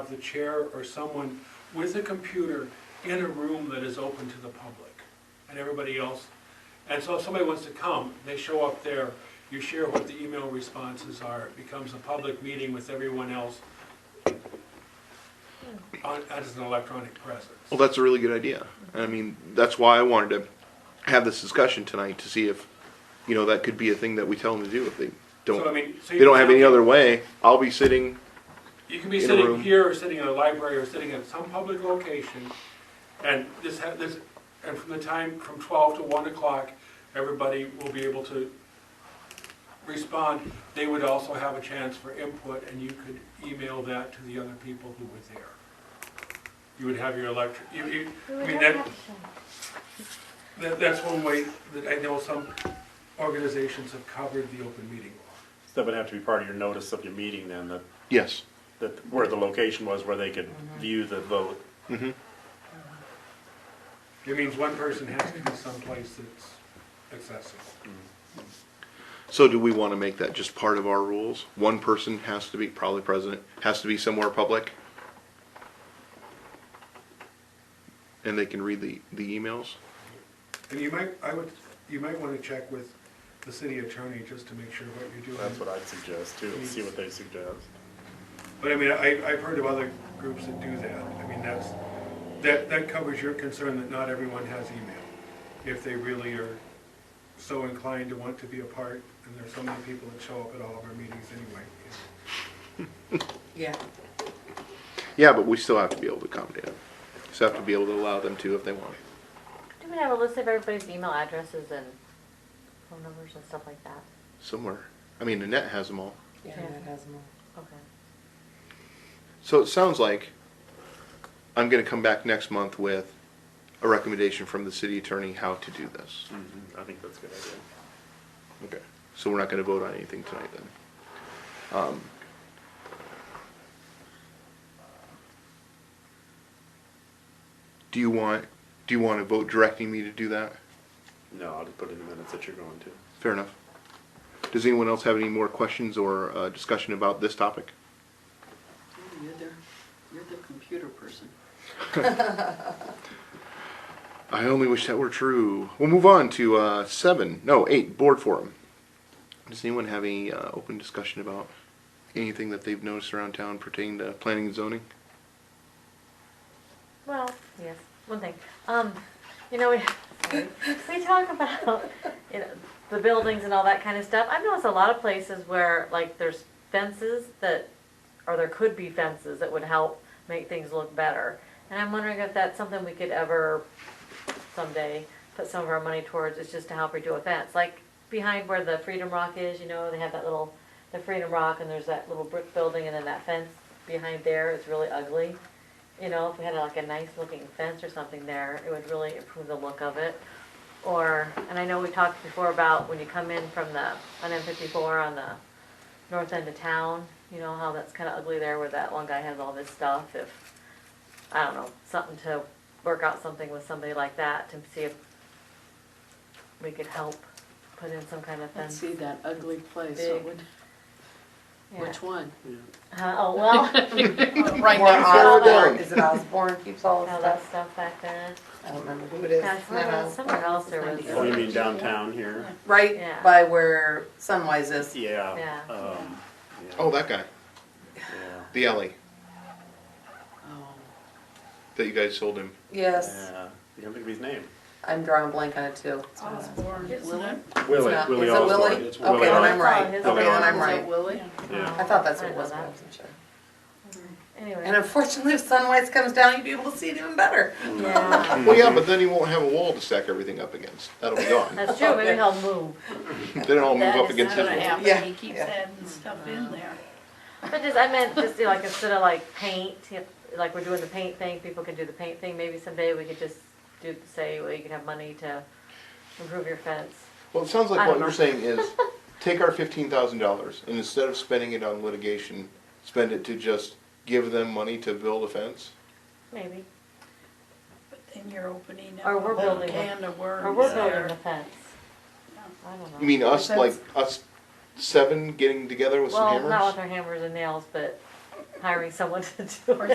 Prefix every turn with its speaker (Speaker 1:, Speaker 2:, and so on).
Speaker 1: have the chair or someone with a computer in a room that is open to the public and everybody else. And so if somebody wants to come, they show up there, you share what the email responses are, it becomes a public meeting with everyone else on, as an electronic presence.
Speaker 2: Well, that's a really good idea. I mean, that's why I wanted to have this discussion tonight to see if, you know, that could be a thing that we tell them to do if they
Speaker 1: So I
Speaker 2: don't,
Speaker 1: mean, so
Speaker 2: they
Speaker 1: you
Speaker 2: don't
Speaker 1: can
Speaker 2: have any other way. I'll be sitting,
Speaker 1: You can be
Speaker 2: in a
Speaker 1: sitting
Speaker 2: room.
Speaker 1: here, or sitting in a library, or sitting at some public location, and this, ha- this, and from the time, from twelve to one o'clock, everybody will be able to respond. They would also have a chance for input, and you could email that to the other people who were there. You would have your electric, you, you,
Speaker 3: We
Speaker 1: I
Speaker 3: would
Speaker 1: mean,
Speaker 3: not
Speaker 1: that,
Speaker 3: have to.
Speaker 1: that, that's one way that I know some organizations have covered the open meeting law.
Speaker 4: That would have to be part of your notice of your meeting then, that,
Speaker 2: yes,
Speaker 4: that where the location was where they could
Speaker 5: Mm-hmm.
Speaker 4: view the vote.
Speaker 1: It means one person has to be someplace that's accessible.
Speaker 2: So do we want to make that just part of our rules? One person has to be, probably president, has to be somewhere public? And they can read the, the emails?
Speaker 1: And you might, I would, you might want to check with the city attorney just to make sure what you're doing.
Speaker 4: That's what I'd suggest too, and see what they suggest.
Speaker 1: But I mean, I, I've heard of other groups that do that. I mean, that's, that, that covers your concern that not everyone has email. If they really are so inclined to want to be a part, and there's so many people that show up at all of our meetings anyway.
Speaker 5: Yeah,
Speaker 2: Yeah, but we still have to be able to accommodate them. Still have to be able to allow them to if they want.
Speaker 3: Do we have a list of everybody's email addresses and phone numbers and stuff like that?
Speaker 2: Somewhere. I mean, Annette has them all.
Speaker 5: yeah,
Speaker 3: Yeah.
Speaker 5: that has more.
Speaker 3: Okay.
Speaker 2: So it sounds like I'm gonna come back next month with a recommendation from the city attorney how to do this.
Speaker 4: I think that's a good idea.
Speaker 2: Okay. So we're not gonna vote on anything tonight then. Um, Do you want, do you wanna vote directing me to do that?
Speaker 4: No, I'll just put in the minutes that you're going to.
Speaker 2: Fair enough. Does anyone else have any more questions or, uh, discussion about this topic?
Speaker 6: You're the, you're the computer person.
Speaker 2: I only wish that were true. We'll move on to uh, seven, no, eight, board forum. Does anyone have any uh, open discussion about anything that they've noticed around town pertaining to planning and zoning?
Speaker 3: Well, yes, one thing. Um, you know, we, sorry. we talk about, you know, the buildings and all that kind of stuff. I've noticed a lot of places where, like, there's fences that, or there could be fences that would help make things look better. And I'm wondering if that's something we could ever someday put some of our money towards is just to help redo a fence. Like behind where the Freedom Rock is, you know, they have that little, the Freedom Rock and there's that little brick building and then that fence behind there is really ugly. You know, if we had like a nice looking fence or something there, it would really improve the look of it. Or, and I know we talked before about when you come in from the, on M fifty-four on the north end of town, you know, how that's kinda ugly there where that one guy has all this stuff, if, I don't know, something to work out something with somebody like that to see if we could help put in some kind of
Speaker 6: Let's
Speaker 3: fence.
Speaker 6: see that ugly place,
Speaker 3: Big.
Speaker 6: what would,
Speaker 3: Yeah.
Speaker 6: which one?
Speaker 3: Uh, oh, well,
Speaker 6: Right
Speaker 5: Where
Speaker 6: next
Speaker 2: Osborne- down.
Speaker 6: door.
Speaker 5: Osborne, is it Osborne keeps all the
Speaker 3: all that
Speaker 5: stuff?
Speaker 3: stuff back then.
Speaker 5: I don't remember who it is.
Speaker 3: Yeah,
Speaker 5: No,
Speaker 3: somewhere else- somewhere else there was,
Speaker 4: Oh, you mean downtown here?
Speaker 3: Yeah.
Speaker 5: Right by where Sunwise is.
Speaker 4: Yeah.
Speaker 3: Yeah.
Speaker 4: um, yeah,
Speaker 2: Oh, that guy,
Speaker 4: yeah,
Speaker 2: the alley
Speaker 6: Oh,
Speaker 2: that you guys sold him.
Speaker 5: Yes,
Speaker 4: Yeah, you can't think of his name.
Speaker 5: I'm drawing a blank on it too.
Speaker 6: it's Osborne. Will it?
Speaker 4: Willie,
Speaker 5: not-
Speaker 4: Willie
Speaker 5: is it
Speaker 4: Osborne.
Speaker 5: Willie?
Speaker 4: It's
Speaker 5: Okay,
Speaker 4: Willie
Speaker 5: then
Speaker 3: Osborne.
Speaker 5: I'm right.
Speaker 3: It's
Speaker 5: Okay,
Speaker 4: Willie
Speaker 5: then
Speaker 4: Osborne.
Speaker 5: I'm
Speaker 6: Is
Speaker 5: right.
Speaker 6: it Willie?
Speaker 4: Yeah.
Speaker 5: I thought that's
Speaker 3: I
Speaker 5: what it
Speaker 3: know
Speaker 5: was, but I
Speaker 3: that.
Speaker 5: wasn't sure. And
Speaker 3: Anyway.
Speaker 5: unfortunately, if Sunwise comes down, you'd be able to see it even better.
Speaker 3: Yeah.
Speaker 2: Well, yeah, but then he won't have a wall to stack everything up against. That'll be gone.
Speaker 3: That's true, maybe he'll move.
Speaker 2: Then it'll all move
Speaker 3: That
Speaker 2: up
Speaker 3: is
Speaker 2: against his
Speaker 3: not
Speaker 7: gonna
Speaker 2: wall.
Speaker 5: Yeah,
Speaker 7: happen, he keeps
Speaker 5: yeah.
Speaker 7: adding stuff in there.
Speaker 3: But just, I meant just do like instead of like paint, you know, like we're doing the paint thing, people can do the paint thing. Maybe someday we could just do, say, well, you can have money to improve your fence.
Speaker 2: Well, it sounds
Speaker 3: I
Speaker 2: like what
Speaker 3: don't
Speaker 2: you're
Speaker 3: know.
Speaker 2: saying is, take our fifteen thousand dollars and instead of spending it on litigation, spend it to just give them money to build a fence?
Speaker 3: Maybe.
Speaker 7: But then you're opening up
Speaker 3: Or
Speaker 7: a
Speaker 3: we're
Speaker 7: whole
Speaker 3: building a-
Speaker 7: can of
Speaker 3: Or
Speaker 7: worms
Speaker 3: we're building the
Speaker 7: there.
Speaker 3: fence. I don't know.
Speaker 2: You mean us, like, us seven getting together with some
Speaker 3: Well,
Speaker 2: hammers?
Speaker 3: not with our hammers and nails, but hiring someone to do it.